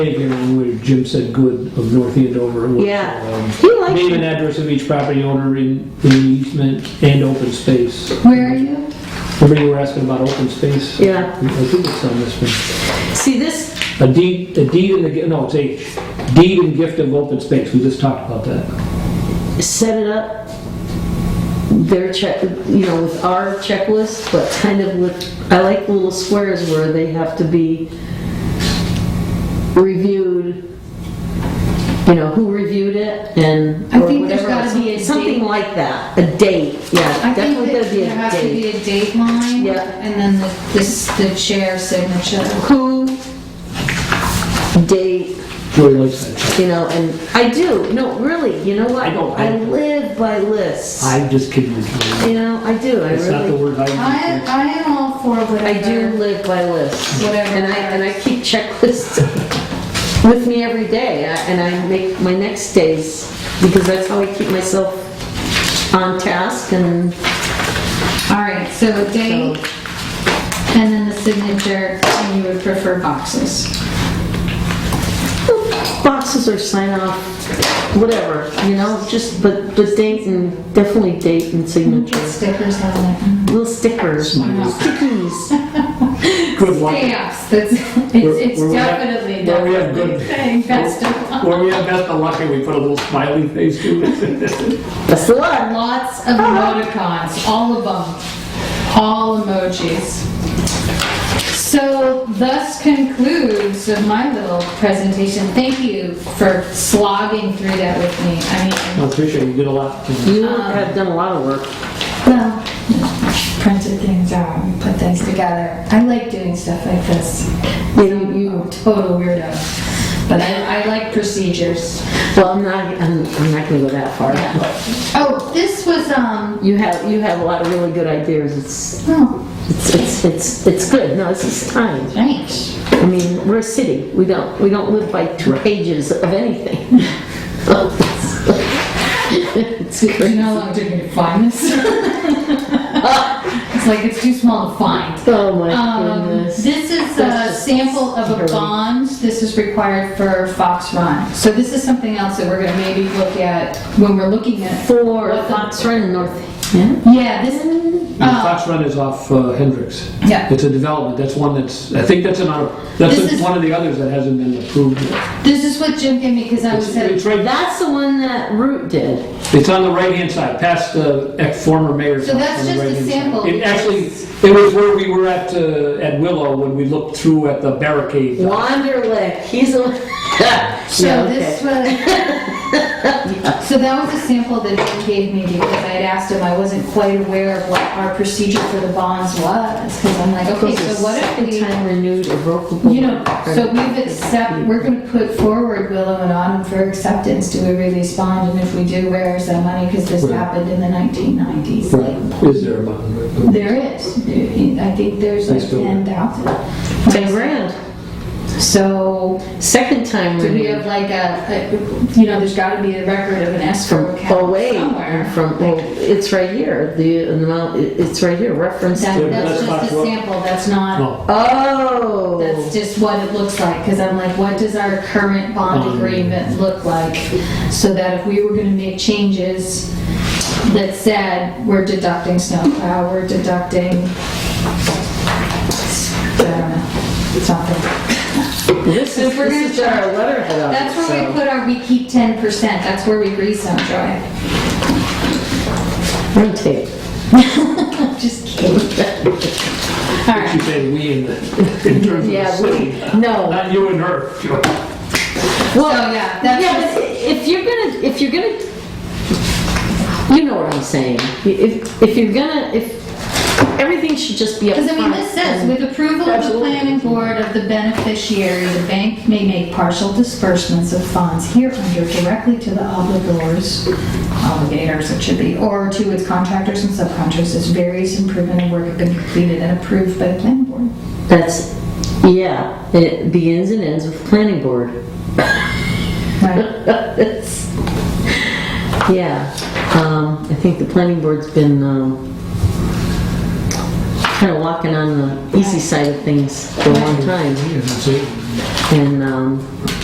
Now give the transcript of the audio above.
here where Jim said good of North Andover. was, Yeah. um, He likes Name and it. address of each property owner in in the easement and open space. Where are you? Remember you were asking about open space? Yeah. I think it's on this one. See, this, A deed, a deed and the, gi- no, it's H. Deed and gift of open space, we just talked about that. set it up, their check, you know, with our checklist, but kind of with, I like the little squares where they have to be reviewed, you know, who reviewed it and, I or think there's whatever, gotta be a else. something date. like that, a date, yeah, I think definitely that gotta be there a has to date. be a dateline. Yeah. And then the, this, the chair signature. Who, date, Joy likes that. you know, and I do, no, really, you know what? I don't- I live by lists. I'm just kidding. It's You know, I do. I not the really, word I I, use. I am all for whatever. I do live by lists. Whatever. And I, and I keep checklists with me every day, I- and I make my next days, because that's how I keep myself on task and, All right, so a date, and then the signature, and you would prefer boxes. boxes or sign off, whatever, you know, just, but, but date and, definitely date and Mm-hmm. signature. Get stickers out of Little stickers, stickies. Good it. luck. Stamps, that's, it's, Where- it's where we have- definitely where not we have a good- thing, best of all. Where we have best of luck and we put a little smiley face to it. That's the one. Lots of emoticons, all of them, all emojis. So thus concludes my little presentation. Thank you for slogging through that with me. I mean, I appreciate it. you did a lot. You Um, have done a lot of work. well, printed things out, and put things together. I like doing stuff like this. You know, you, I'm a total weirdo, but I, I like procedures. well, I'm not, I'm, I'm not gonna go that far, but. Oh, this was, um, You have, you have a lot of really good ideas. It's, oh, it's, it's, it's, it's good. No, this is time. thanks. I mean, we're a city. We don't, we don't live by two pages of anything. It's Do you great. know how long it took me to find this? It's like, it's too small to find. Oh my Um, goodness. This is a That's just sample of a scary. bond, this is required for Fox Run. So this is something else that we're gonna maybe look at when we're looking at. For what the- Fox Run North. Yeah. Yeah, this, Mm-hmm. uh, Fox Run is off uh, Hendricks. Yeah. It's a development, that's one that's, I think that's another, This that's is- one of the others that hasn't been approved yet. this is what Jim gave me, because I was It's at, it's right, That's the one that Root did. it's on the right-hand side, past the ex- former mayor's. So house that's on the just a right-hand side. sample, It actually, it was where we were at, uh, at Willow when we looked through at the barricade. Wanderlick. He's a. so Yeah, this okay. was. So that was a sample that Jim gave me, because I had asked him, I wasn't quite aware of what our procedure for the bonds was, because I'm like, okay, so what if we. Time renewed irrevocable. You know, so we've accept, we're gonna put forward Willow and Autumn for acceptance, do we release bond, and if we do, where is that money? Because this Right. happened in the nineteen nineties. Right. Is there a bond? There is, I think there's like Nice to- ten thousand. Ten grand. So, Second time do we renewed. have like a, a- you know, there's gotta be a record of an escrow From account away, somewhere. from, well, it's right here, the amount, it- it's right here, reference That- to. That's That's not just a what- sample, that's not, No, that's Oh, just what it looks like, because I'm like, what does our current bond Um, agreement look like? So that if we were gonna make changes that said, we're deducting snowplow, we're deducting, I don't know, something. this if is, we're gonna this is our letterhead on it, That's where we so. put our, we keep ten percent, that's where we grease them, Joy. Run tape. Just kidding. All she right, said we in the, in terms of the Yeah, city. we, no. Not you and her. Sure. So, yeah, that's Yeah, but if you're gonna, if you're gonna, you know what I'm saying. If, if you're gonna, if, everything should just be up because I mean, front this says, and- with approval of the Absolutely. planning board of the beneficiary, the bank may make partial disbursements of funds hereunder directly to the obligors, obligators it should be, or to its contractors and subcontractors as various improvement and work have been completed and approved by the planning board. That's, yeah, it begins and ends with planning board. Right, It's- Yeah, um, I think the planning board's been, um, kind of walking on the easy side of things for a long time. Yeah, that's it. And, um,